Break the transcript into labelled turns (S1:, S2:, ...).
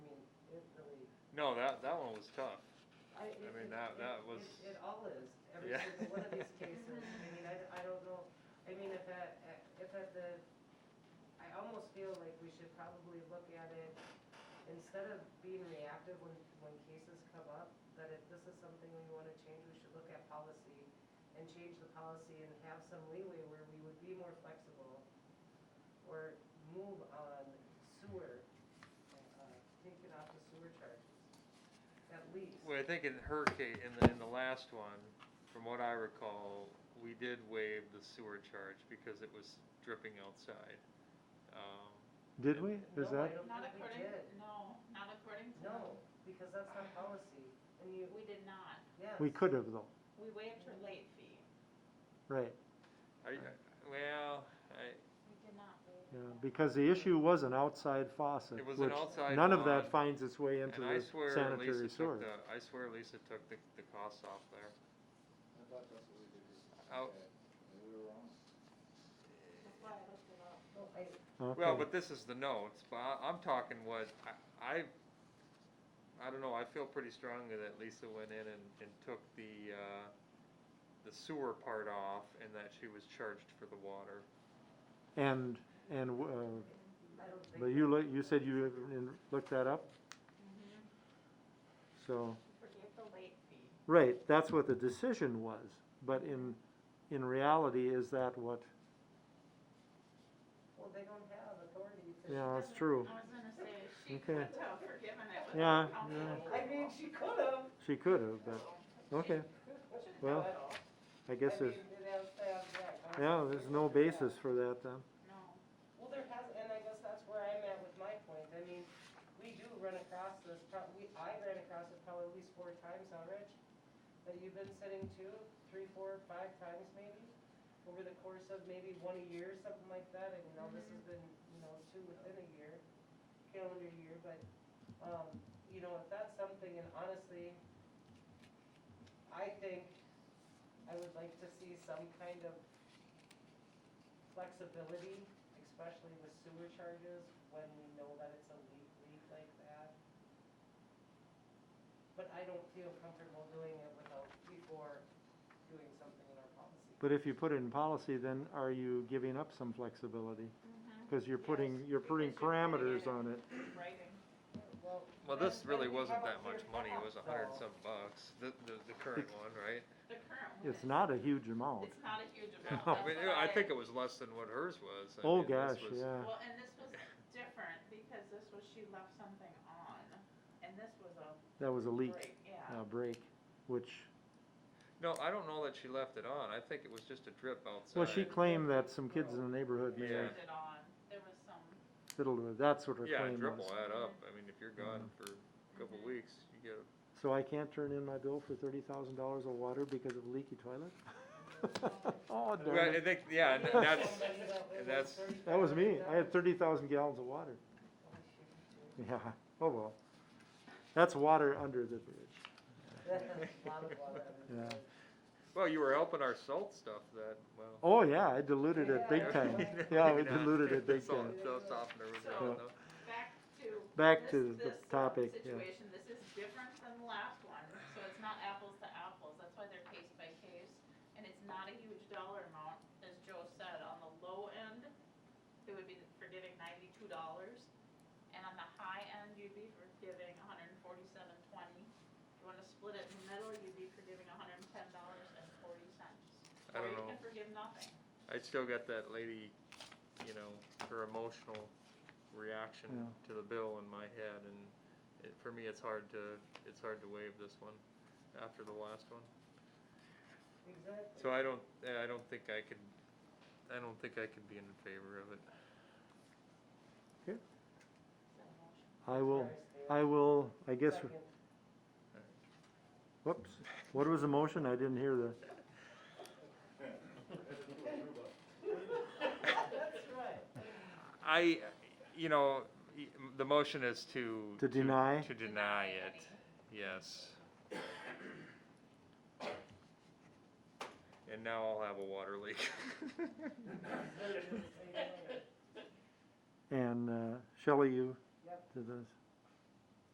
S1: No, that, that one was tough.
S2: I, it- it-
S1: mean, that-
S2: it-
S1: that
S2: it-
S1: was-
S2: It all is, every
S1: Yeah.
S2: single one of these cases, I mean, I, I don't know, I mean, if at, at- if at the, I almost feel like we should probably look at it, instead of being reactive when, when cases come up, that if this is something we wanna change, we should look at policy and change the policy and have some leeway where we would be more flexible or move on sewer, uh, taking off the sewer charges, at least.
S1: Well, I think in her case, in the, in the last one, from what I recall, we did waive the sewer charge because it was dripping outside. Um,
S3: Did we? Is
S2: No, I
S3: that?
S2: don't
S4: Not
S2: think we
S4: according,
S2: did.
S4: no, not according to.
S2: No, because that's not policy, and you,
S4: We did not.
S2: yes.
S3: We could have though,
S4: We waived her late fee.
S3: right,
S1: I, I- well, I,
S4: We did not waive.
S3: yeah,
S4: her.
S3: because the issue was an outside faucet.
S1: It was an
S3: which
S1: outside
S3: None of
S1: line,
S3: that finds its way into
S1: and I
S3: the
S1: swear Lisa
S3: sanitary
S1: took
S3: sewer.
S1: the, I swear Lisa took the, the costs off there.
S5: I thought that's what we did.
S1: Out.
S5: And we were wrong.
S4: That's why I looked it up.
S2: No, I,
S1: Well,
S3: Okay.
S1: but this is the notes, but I, I'm talking what, I, I, I don't know, I feel pretty strongly that Lisa went in and, and took the, uh, the sewer part off and that she was charged for the water.
S3: And, and, uh,
S2: I don't think.
S3: but you look, you said you have- and looked that up,
S4: Mhm.
S3: so,
S4: We forgave the late fee.
S3: right, that's what the decision was, but in, in reality, is that what,
S2: Well, they don't have authority to.
S3: yeah, that's true.
S4: I was gonna say, she
S3: Okay.
S4: could have forgiven it with
S3: Yeah,
S4: council
S3: yeah.
S4: approval.
S2: I mean, she could have.
S3: She could have, but, okay,
S4: Shouldn't
S3: Well,
S4: have at all.
S3: I guess there's, yeah, there's no basis for that then.
S4: No.
S2: Well, there has, and I guess that's where I'm at with my point, I mean, we do run across this, prob- we I ran across it probably at least four times now, Rich, that you've been sitting two, three, four, five times maybe, over the course of maybe one a year, something like that, and now this has been, you know, two within a year, calendar year, but, um, you know, if that's something, and honestly, I think I would like to see some kind of flexibility, especially with sewer charges, when we know that it's a leak, leak like that. But I don't feel comfortable doing it without, before doing something in our policy.
S3: But if you put it in policy, then are you giving up some flexibility?
S4: Mhm.
S3: Because you're putting,
S4: Yes,
S3: you're putting
S4: because you're putting it
S3: parameters on it.
S4: in Mm-hmm. Writing.
S2: Well,
S1: Well, this
S2: then-
S1: really
S2: then we
S1: wasn't
S2: have a
S1: that much
S2: clear
S1: money, it was
S2: path,
S1: a hundred and
S2: though.
S1: some bucks, the, the, the current one, right?
S4: The current one.
S3: It's not a huge amount.
S4: It's not a huge amount.
S1: I
S4: That's
S1: mean,
S4: what
S1: I think it was less than what hers was. I
S3: Oh,
S1: mean, this
S3: gosh,
S1: was-
S3: yeah.
S4: Well, and this was different because this was, she left something on and this was a
S3: That was a leak,
S4: break, yeah.
S3: a break, which,
S1: No, I don't know that she left it on, I think it was just a drip outside.
S3: well, she claimed that some kids in the neighborhood may have
S4: turned it on. There was some,
S3: fiddled with, it. Mm-hmm. that's what her
S1: Yeah, a
S3: claim
S1: drip
S3: was.
S1: will add up, I mean, if you're gone for a couple
S4: Mhm.
S1: weeks, you get a
S3: So I can't turn in my bill for thirty thousand dollars of water because of a leaky toilet? Oh, darn
S1: Well, I
S3: it.
S1: think, yeah, and that's,
S2: Somebody that we
S1: and
S2: were
S1: that's-
S2: certified
S3: That was me.
S2: with
S3: I had thirty thousand gallons of water. Yeah, oh well. That's water under the bridge.
S2: A lot of water.
S3: Yeah.
S1: well, you were helping our salt stuff that, well.
S3: Oh, yeah, I diluted it big
S2: Yeah.
S3: time. Yeah, we diluted it big
S1: Salt
S3: time.
S1: and stuff softener was
S4: So-
S1: gone, though.
S4: back to.
S3: Back
S4: this-
S3: to the
S4: this, um,
S3: topic, yeah.
S4: Situation, this is different than the last one, so it's not apples to apples, that's why they're case by case. And it's not a huge dollar amount, as Joe said, on the low end, it would be forgiving ninety-two dollars. And on the high end, you'd be forgiving a hundred and forty-seven twenty. If you wanna split it in the middle, you'd be forgiving a hundred and ten dollars and forty cents.
S1: I don't
S4: Or you
S1: know.
S4: can forgive nothing.
S1: I still got that lady, you know, her emotional reaction
S3: Yeah.
S1: to the bill in my head, and it, for me, it's hard to, it's hard to waive this one after the last one.
S2: Exactly.
S1: So I don't, I don't think I could, I don't think I could be in favor of it.
S4: Is that a motion?
S3: I will, I will, I guess,
S2: Second.
S3: whoops, what was the motion? I didn't hear the.
S2: That's right.
S1: I, you know, y- the motion is to.
S3: To deny?
S1: To deny it,
S4: any.
S1: yes. And now I'll have a water leak.
S2: They're just saying,
S3: And uh, Shelley, you
S2: Yep.
S3: did this.